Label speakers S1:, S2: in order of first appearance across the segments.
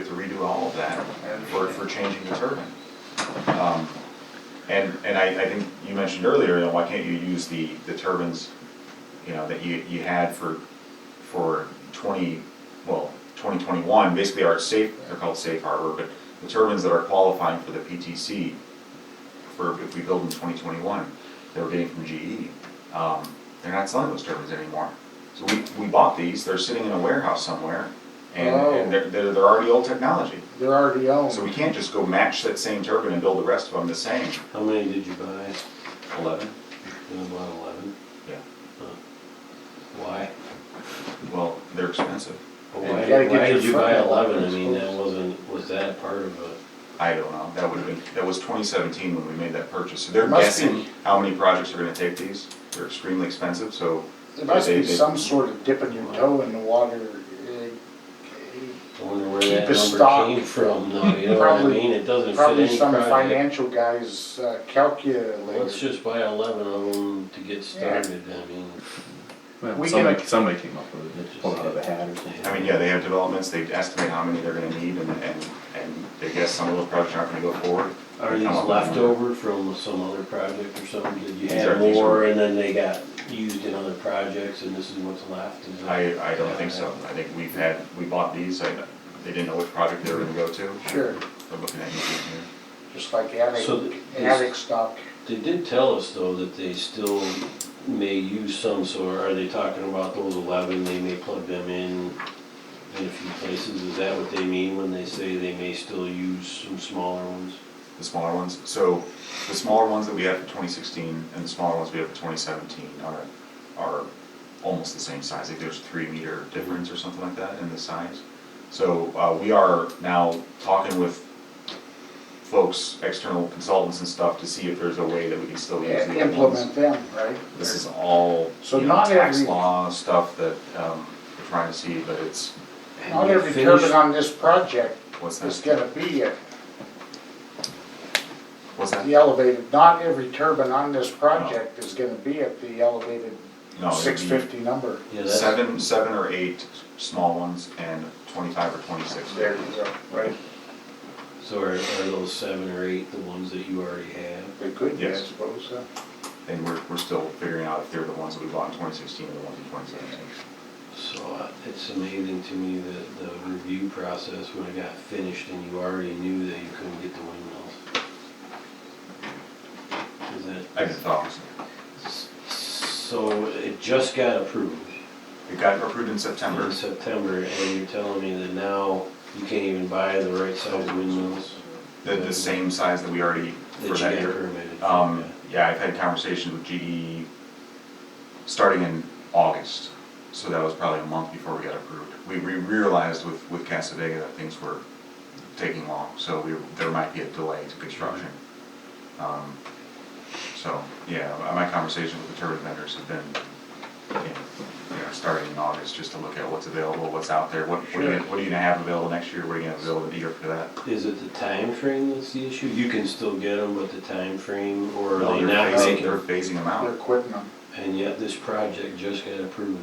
S1: to redo all of that for, for changing the turbine. Um, And, and I, I think you mentioned earlier, you know, why can't you use the, the turbines, you know, that you, you had for, for twenty, well, twenty twenty-one, basically our safe, they're called safe harbor, but the turbines that are qualifying for the PTC, for if we build in twenty twenty-one, they were getting from GE. Um, they're not selling those turbines anymore. So we, we bought these, they're sitting in a warehouse somewhere, and,
S2: Oh.
S1: and they're, they're, they're already old technology.
S2: They're already owned.
S1: So we can't just go match that same turbine and build the rest of them the same.
S3: How many did you buy?
S1: Eleven?
S3: You only bought eleven?
S1: Yeah.
S3: Huh. Why?
S1: Well, they're expensive.
S3: Well,
S2: And
S3: Why
S2: you gotta
S3: did,
S2: get
S3: why
S2: your
S3: did you buy
S2: front door
S3: eleven? I mean, that
S2: exposed.
S3: wasn't, was that part of a,
S1: I don't know, that would have been, that was twenty seventeen when we made that purchase. So they're
S2: It must be-
S1: guessing how many projects are gonna take these. They're extremely expensive, so.
S2: There must
S1: they-
S2: be
S1: they-
S2: some sort of dipping your toe in the water. It-
S3: I wonder where
S2: Keep
S3: that
S2: a stock.
S3: number came from, though, you know what I
S2: Probably-
S3: mean? It doesn't
S2: it-
S3: fit any project.
S2: Probably some financial guy's uh,
S3: Let's
S2: calculator.
S3: just buy eleven of them to get started, I mean,
S4: Well,
S2: We
S4: somebody,
S2: can-
S4: somebody came up with
S3: It's
S4: it,
S3: just
S4: pulled out of a
S3: like-
S4: hat or something.
S1: I mean, yeah, they have developments, they estimate how many they're gonna need and, and, and they guess some of those projects aren't gonna go forward.
S3: are
S1: They
S3: these
S1: come up with a number.
S3: leftover from some other project or something? Did you
S1: These
S3: have
S1: are- these are-
S3: more and then they got used in other projects and this is what's left? Is that-
S1: I, I don't think so. I think we've had, we bought these, I, they didn't know which project they were gonna go to.
S2: Sure,
S1: They're looking at you here.
S2: just like
S3: So
S2: attic,
S3: th-
S2: attic stock.
S3: They did tell us though that they still may use some, so are they talking about those eleven, they may plug them in in a few places, is that what they mean when they say they may still use some smaller ones?
S1: The smaller ones, so the smaller ones that we have for twenty sixteen and the smaller ones we have for twenty seventeen are, are almost the same size, like there's three meter difference or something like that in the size. So, uh, we are now talking with folks, external consultants and stuff to see if there's a way that we can still use
S2: and
S1: the old ones.
S2: Implement them, right?
S1: This is all,
S2: So
S1: you know,
S2: not
S1: tax
S2: every-
S1: law stuff that, um, we're trying to see, but it's,
S2: Not
S3: And you
S2: every
S3: finish-
S2: turbine on this project
S1: what's
S2: is
S1: that,
S2: gonna be at
S1: what's that?
S2: the elevated, not every turbine on this project is gonna be at the elevated
S1: No, it'd
S2: six
S1: be-
S2: fifty number.
S3: Yeah, that's-
S1: Seven, seven or eight small ones and twenty-five or twenty-six.
S2: There you go, right?
S3: So are, are those seven or eight the ones that you already have?
S2: They could, be, I
S1: Yes.
S2: suppose, uh,
S1: And we're, we're still figuring out if they're the ones that we bought in twenty sixteen or the ones in twenty seventeen.
S3: So uh, it's amazing to me that the review process, when it got finished and you already knew that you couldn't get the windmills. Is that?
S1: I just thought,
S3: So it just got approved
S1: it got approved in
S3: in
S1: September.
S3: September, and you're telling me that now you can't even buy the right size windmills?
S1: The, the same size that we already,
S3: That
S1: for
S3: you
S1: that
S3: got
S1: year.
S3: permitted for,
S1: Um, yeah,
S3: yeah.
S1: I've had conversations with GE starting in August. So that was probably a month before we got approved. We, we realized with, with Casadega that things were taking long, so we, there might be a delay to construction. Um, So, yeah, my conversation with the turbine vendors have been, you know, starting in August, just to look at what's available, what's out there, what, what are you, gonna- what are you gonna have available next year, what are you gonna have available the year for that?
S3: Is it the time frame that's the issue? You can still get them, but the time frame, or
S1: No,
S3: are they
S1: they're
S3: not
S1: phasing-
S3: making?
S1: They're phasing them
S2: they're
S1: out,
S2: quitting them.
S3: And yet this project just got approved.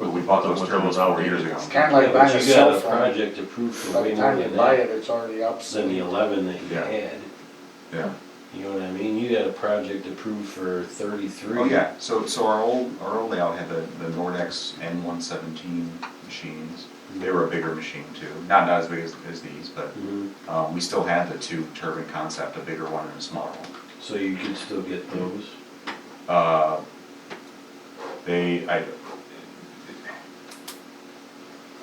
S1: but we bought those
S4: With
S1: turbines
S4: those
S1: four years ago.
S2: It's kind of like
S3: Yeah, but
S2: buying a
S3: you got
S2: cell phone.
S3: Project approved for
S2: By
S3: way
S2: the
S3: more
S2: time you
S3: than
S2: buy
S3: that,
S2: it, it's already
S3: than the
S2: obsolete.
S3: eleven that you
S1: Yeah.
S3: had.
S1: Yeah.
S3: You know what I mean? You got a project approved for thirty-three.
S1: Oh, yeah, so, so our old, our old layout had the, the Nordex N one seventeen machines. They were a bigger machine too, not, not as big as, as these, but,
S3: Mhm.
S1: um, we still had the two turbine concept, a bigger one and a smaller one.
S3: So you could still get those.
S1: Uh, They, I,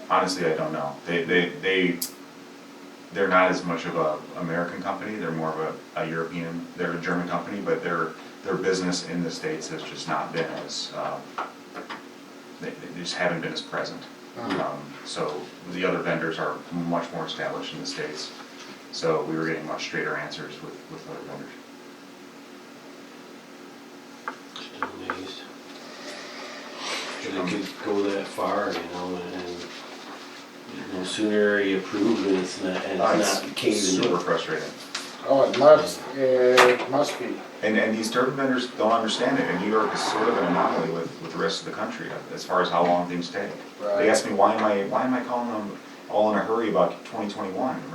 S1: honestly, I don't know. They, they, they, they're not as much of a American company, they're more of a, a European, they're a German company, but their, their business in the States has just not been as, uh, they, they just haven't been as present.
S2: Mhm.
S3: Uh-huh.
S1: Um, So the other vendors are much more established in the States, so we were getting much straighter answers with, with other vendors.
S3: Just amazed. That it could go that far, you know, and, and no sooner you approve and it's not, and
S1: Uh,
S3: it's not caving
S1: Super
S3: in.
S1: frustrating.
S2: Oh, it must, uh, it must be.
S1: And, and these turbine vendors don't understand it, and New York is sort of an anomaly with, with the rest of the country as far as how long things take.
S2: Right.
S1: They ask me, why am I, why am I calling them all in a hurry about twenty twenty-one, right?